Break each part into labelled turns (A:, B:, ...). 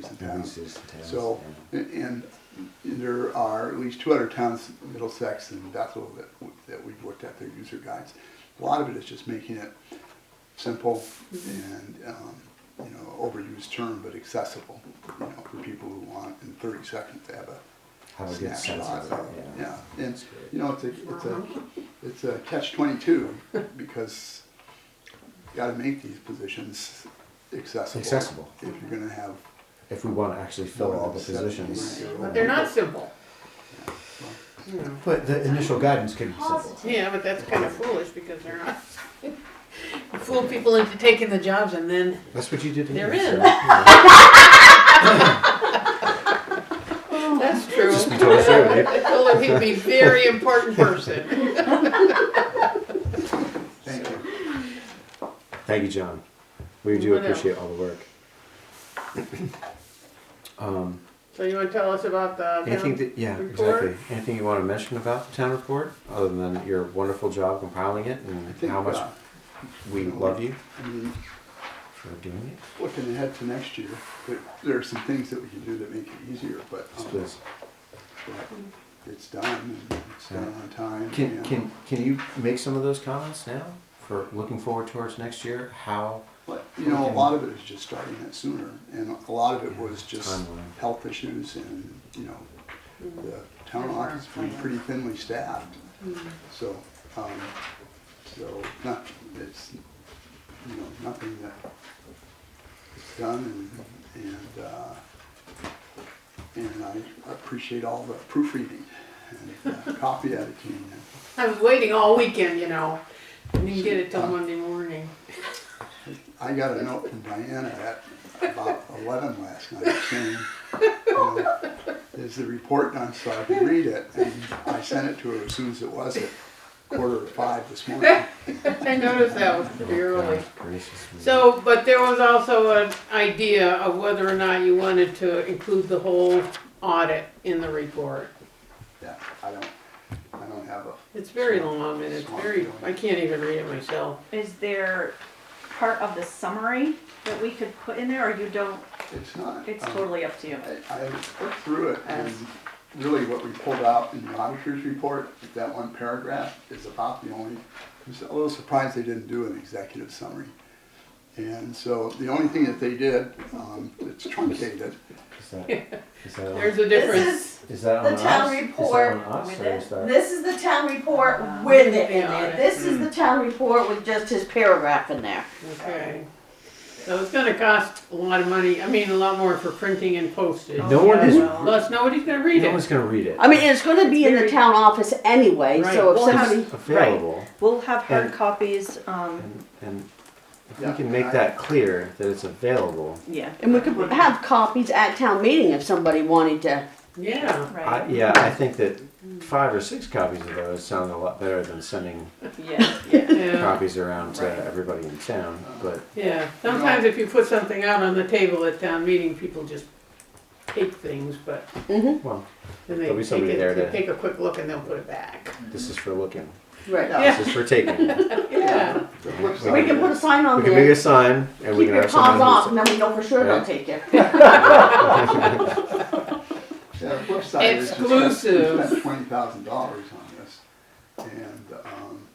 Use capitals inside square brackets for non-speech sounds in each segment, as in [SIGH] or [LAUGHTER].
A: cities in town.
B: Releases and towns,
A: So, and there are at least two other towns, Middlesex and Bethel, that, w- that we've looked at their user guides. A lot of it is just making it simple and, um, you know, overused term, but accessible, you know, for people who want in thirty seconds to have a
B: How it gets sense
A: snapshot
B: of
A: of,
B: it,
A: yeah.
B: yeah.
A: And, you know, it's a, it's a, it's a catch twenty-two, because you gotta make these positions accessible.
B: Accessible.
A: If you're gonna have.
B: If we want to actually fill
A: more
B: all
A: than
B: the
A: seven
B: positions.
A: people.
C: They're not simple.
B: But the initial guidance could be simple.
C: Yeah, but that's kind of foolish because they're not. [LAUGHS] You Fool people into taking the jobs and then,
B: That's what you did. to me,
C: There is.
B: Sarah. Yeah.
C: that's true.
B: Just be totally
C: [LAUGHS]
B: fair, right?
C: I told him he'd be a very important person.
A: Thank you.
B: Thank you, John. We do
C: What else?
B: appreciate all the work. Um,
C: So you want to tell us about the
B: anything
C: town
B: that, yeah,
C: report?
B: exactly. Anything you want to mention about the town report, other than your wonderful job compiling it and
A: think,
B: how much
A: uh,
B: we love you
A: I mean,
B: for doing it?
A: looking ahead to next year, but there are some things that we can do that make it easier, but
B: Yes,
A: um,
B: please.
A: but it's done, and it's done on time.
B: Can,
A: and-
B: can, can you make some of those comments now for looking forward towards next year? How?
A: But, you know, a lot of it is just starting it sooner, and a lot of it was just
B: Timeline.
A: health issues and, you know, the town office being pretty thinly staffed. So, um, so not, it's, you know, nothing that is done and, and, uh, and I appreciate all the proofreading and uh, copy editing and
C: I was waiting all weekend, you know, and didn't get it till Monday morning.
A: I got a note from Diana at about eleven last night saying, you know, is the report done so I can read it? And I sent it to her as soon as it was at quarter to five this morning.
C: I noticed that was pretty early.
B: Oh, God gracious me.
C: So, but there was also an idea of whether or not you wanted to include the whole audit in the report.
A: Yeah, I don't, I don't have a,
C: It's very long and it's very, I can't even read it myself.
D: Is there part of the summary that we could put in there, or you don't,
A: it's not.
D: it's
A: um,
D: totally up to you?
A: I, I looked through it and really what we pulled out in the auditor's report, that one paragraph is about the only, I was a little surprised they didn't do an executive summary. And so the only thing that they did, um, it's truncated,
B: Is that, is that, on,
C: There's a difference.
E: This is
B: is that on
E: the
B: us?
E: town
B: Is that
E: report
B: on us
D: with
B: or is that?
E: This is the town report with it in there. This is
B: Hmm.
E: the town report with just his paragraph in there.
C: Okay. So it's gonna cost a lot of money, I mean, a lot more for printing and postage.
B: No one is,
D: Yeah, well,
C: Plus, nobody's gonna read
B: no one's
C: it.
B: gonna read it.
E: I mean, it's gonna be in the town office anyway, so if
C: Right. Well, how
E: somebody,
B: It's available.
D: We'll have hard
B: And-
D: copies, um,
B: And, and if
A: Yeah,
B: we can make
A: I-
B: that clear that it's available,
D: yeah,
E: and we could have copies at town meeting if somebody wanted to.
C: Yeah,
B: I,
D: right,
B: yeah, I think that five or six copies of those sound a lot better than sending
D: yeah, yeah.
C: yeah,
B: copies around to
D: Right.
B: everybody in town.
A: Uh-huh.
B: But
C: yeah. Sometimes if you put something out on the table at town meeting, people just take things, but
E: Mm-hmm,
B: well,
C: then they
B: There'll be
C: take
B: somebody
C: it,
B: there
C: they
B: to-
C: take a quick look and they'll put it back.
B: this is for looking.
E: right.
A: Yeah.
B: This is for taking. We
C: Yeah,
A: the flip side.
E: We can put a sign on
B: can make a
E: there,
B: sign and we
E: keep
B: can
E: your
B: have
E: paws off,
B: someone.
E: and then we know for sure
B: Yeah.
E: they'll take it.
A: Yeah, the flip side is we spent- We
C: Exclusive.
A: spent twenty thousand dollars on this, and, um,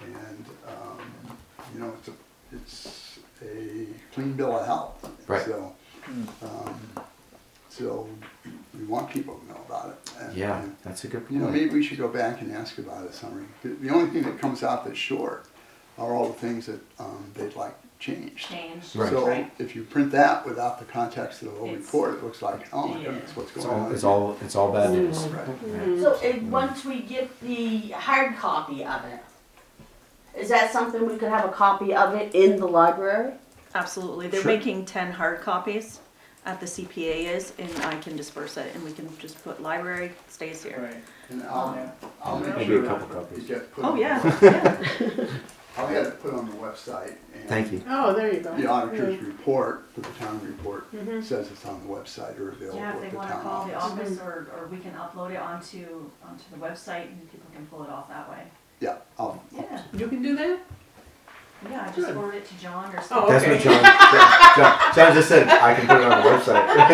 A: and, um, you know, it's a, it's a clean bill of health.
B: Right.
A: So, um, so we want people to know about it. and-
B: Yeah,
A: and,
B: that's a good
A: You know,
B: point.
A: maybe we should go back and ask about a summary. The- The only thing that comes out that's short are all the things that, um, they'd like changed.
D: Change.
B: Right.
A: So
D: Right.
A: if you print that without the context of the whole
D: It's-
A: report, it looks like, oh my goodness, what's
B: It's
A: going
B: all,
A: on?
B: it's all, it's all bad news.
A: Right.
E: So, and once we get the hard copy of it, is that something we could have a copy of it in the library?
D: Absolutely, they're
B: Sure.
D: making ten hard copies at the CPA is, and I can disperse it, and we can just put library stays here.
A: And I'll, I'll make
B: Maybe a
A: sure
B: couple
A: it
B: copies.
A: gets put.
D: Oh,
A: on-
D: yeah,
C: [LAUGHS]
D: yeah,
A: I'll have it put on the website. and
B: Thank you.
C: [LAUGHS] oh, there you go.
A: The auditor's
C: Yeah.
A: report, for the town report, says it's on the website or available
D: Mm-hmm. yeah,
A: at
D: if
A: the
D: they wanna
A: town
D: call the
C: Mm-hmm.
A: office.
D: office, or, or we can upload it onto, onto the website, and people can pull it off that way,
A: Yeah, I'll,
D: yeah,
C: You can do that?
D: yeah, I
C: Good.
D: just forward it to John or something.
C: Oh,
B: That's
C: okay.
B: what John, John, John just said, I can put it on the website.